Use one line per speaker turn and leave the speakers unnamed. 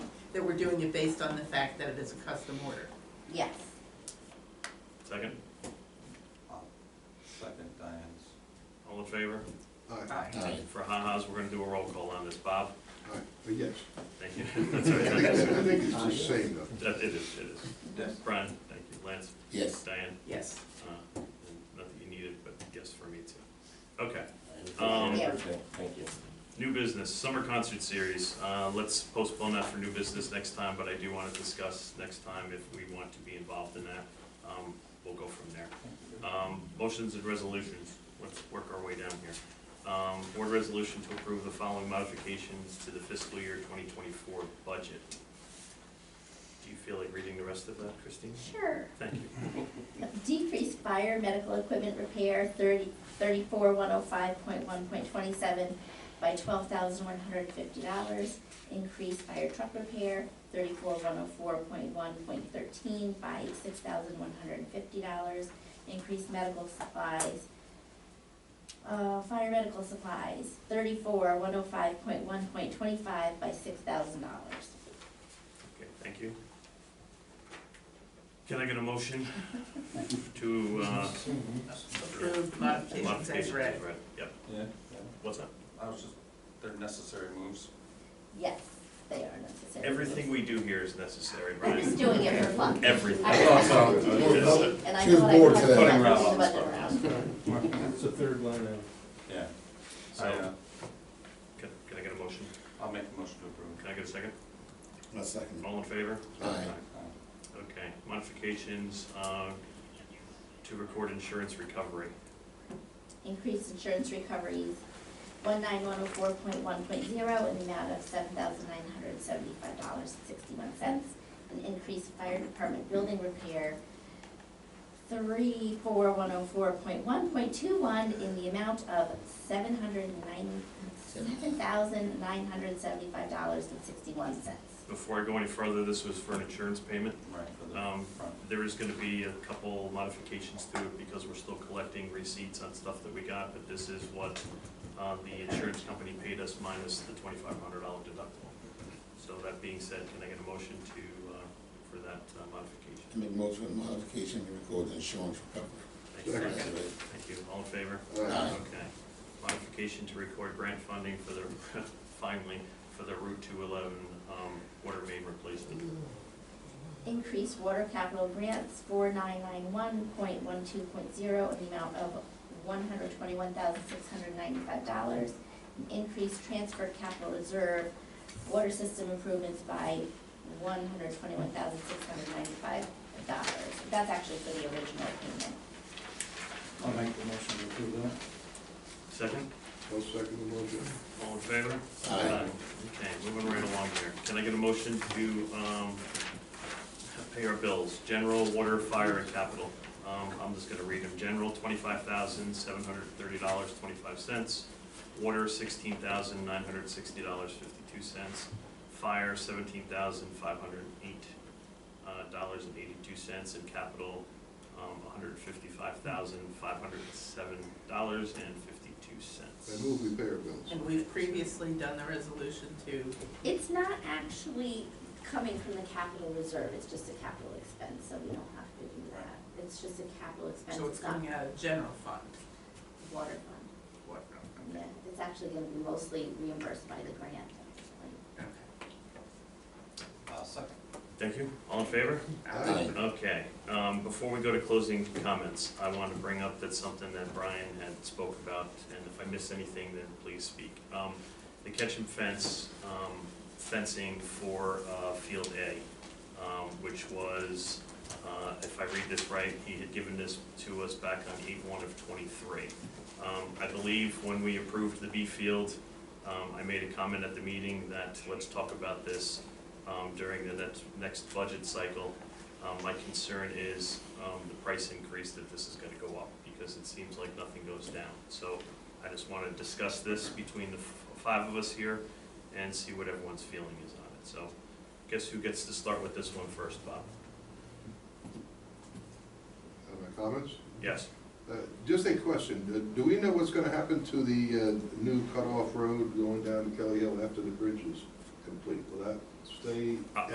that we're doing it based on the fact that it is a custom order.
Yes,
Second,
I'll Second Diane's.
all in favor?
Aye.
Aye.
For ha-has, we're gonna do a roll call on this. Bob?
Aye. But yes,
Thank you.
I
That's all
think
right.
it's- I think it's the same though.
That- It is, it is.
Yes.
Brian, thank you. Lance?
Yes.
Diane?
Yes.
Uh, and Not that you need it, but yes for me too. Okay, Um,
Thank you.
Thank you.
new business, summer concert series. Uh, Let's postpone that for new business next time, but I do want to discuss next time if we want to be involved in that. Um, We'll go from there. Um, Motions and resolutions, let's work our way down here. Um, Board resolution to approve the following modifications to the fiscal year 2024 budget. Do you feel like reading the rest of that, Christine?
sure.
Thank you.
Decrease fire medical equipment repair thirty, thirty-four one oh five point one point twenty-seven by twelve thousand one hundred fifty dollars. Increase fire truck repair thirty-four one oh four point one point thirteen by six thousand one hundred fifty dollars. Increase medical supplies, uh, fire medical supplies thirty-four one oh five point one point twenty-five by six thousand dollars.
Okay, thank you. Can I get a motion to uh,
Approved modifications as
modifications
read.
as read? Yep,
Yeah.
what's up?
I was just, they're necessary moves.
Yes, they are necessary.
Everything we do here is necessary,
I'm
Brian.
just doing it for fun.
Everything.
I-
Yes.
And I
She was
thought I
bored
would have
today.
to
Putting
throw
Ralph on
the
the
button
spot.
around.
It's the third line down.
Yeah. I, uh,
So, can can I get a motion?
I'll make a motion to approve.
Can I get a second?
I'll second.
All in favor?
Aye.
Uh,
Okay, modifications uh, to record insurance recovery.
Increase insurance recoveries, one nine one oh four point one point zero, in the amount of seven thousand nine hundred seventy-five dollars and sixty-one cents. And increase fire department building repair, three four one oh four point one point two one, in the amount of seven hundred nine, seven thousand nine hundred seventy-five dollars and sixty-one cents.
Before I go any further, this was for an insurance payment.
Right, for the
Um,
front.
There is gonna be a couple modifications to it because we're still collecting receipts on stuff that we got, but this is what uh, the insurance company paid us minus the twenty-five hundred dollar deductible. So that being said, can I get a motion to, uh, for that uh,
I
modification?
make motion with modification, we record the insurance
Thank you.
recovery.
Thank you, all in favor?
Aye.
Okay. Modification to record grant funding for the, finally, for the Route two eleven um, water main replacement.
Increase water capital grants four nine nine one point one two point zero in the amount of one hundred twenty-one thousand six hundred ninety-five dollars. Increase transfer capital reserve water system improvements by one hundred twenty-one thousand six hundred ninety-five dollars. That's actually for the original payment.
I'll make the motion to approve that.
Second,
I'll second the motion.
all in favor?
Aye.
Okay, moving right along here. Can I get a motion to um, pay our bills? General, water, fire, and capital. Um, I'm just gonna read them. General, twenty-five thousand, seven hundred thirty dollars, twenty-five cents. Water, sixteen thousand, nine hundred sixty dollars, fifty-two cents. Fire, seventeen thousand, five hundred eight uh, dollars and eighty-two cents. And capital, one hundred fifty-five thousand, five hundred seven dollars and fifty-two cents.
I move we pay our bills.
And we've previously done the resolution to,
It's not actually coming from the capital reserve, it's just a capital expense, so we don't have to do that. It's just a capital expense,
so it's
it's not
coming out of general fund.
water fund.
What,
Yeah, it's actually gonna be mostly reimbursed by the grant.
okay.
I'll Uh, second.
Thank you. All in favor?
Aye.
Okay, um, before we go to closing comments, I want to bring up that something that Brian had spoke about, and if I miss anything, then please speak. Um, the Ketchum fence, um, fencing for, uh, Field A, um, which was, uh, if I read this right, he had given this to us back on eight one of twenty-three. Um, I believe when we approved the B field, um, I made a comment at the meeting that let's talk about this, um, during the next, next budget cycle. Um, my concern is, um, the price increase that this is gonna go up, because it seems like nothing goes down. So I just wanna discuss this between the f- five of us here and see what everyone's feeling is on it. So guess who gets to start with this one first, Bob?
Have my comments?
Yes?
Uh, Just a question, Uh, do we know what's gonna happen to the uh, new cutoff road going down to Kelly Hill after the bridge is complete? Will that stay